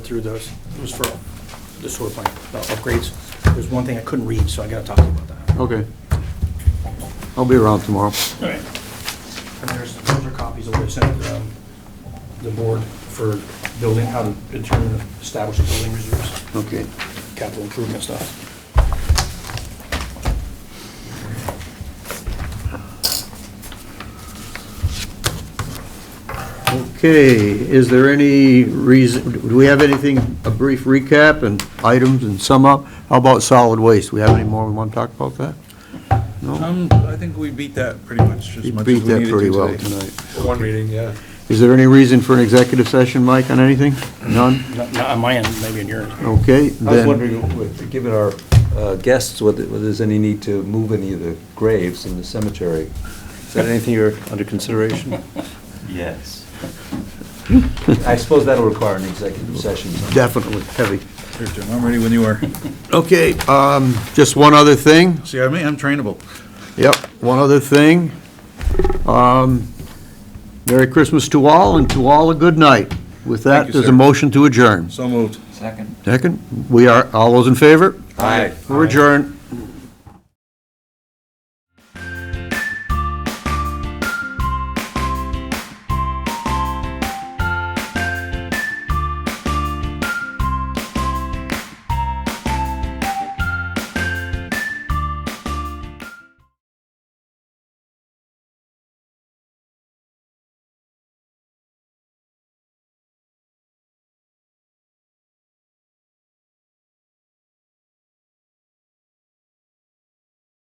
through those. It was for the sewer plant uh, upgrades. There's one thing I couldn't read, so I gotta talk to you about that. Okay. I'll be around tomorrow. All right. And there's, those are copies of what I sent um, the board for building, how to determine, establish the building reserves, Okay. capital improvement stuff. Okay, is there any reason, do we have anything, a brief recap and items and sum up? How about solid waste? We have any more we want to talk about that? No? Um, I think we beat that pretty much We as much as we beat needed to that today. pretty well tonight. One reading, yeah. Is there any reason for an executive session, Mike, on anything? None? Not not on my end, maybe on yours. Okay, I was then, wondering, given our uh, guests, whether whether there's any need to move any of the graves in the cemetery. Is that anything you're under consideration? Yes. I suppose that'll require an executive session. definitely, heavy. Sure, Jim, I'm ready when you are. Okay, um, just one other thing. See, I mean, I'm trainable. Yep, one other thing. Um, Merry Christmas to all, and to all a good night. With Thank that, you, there's a sir. motion to adjourn. So moved. Second. Second, we are, all those in favor? Aye. We're adjourned.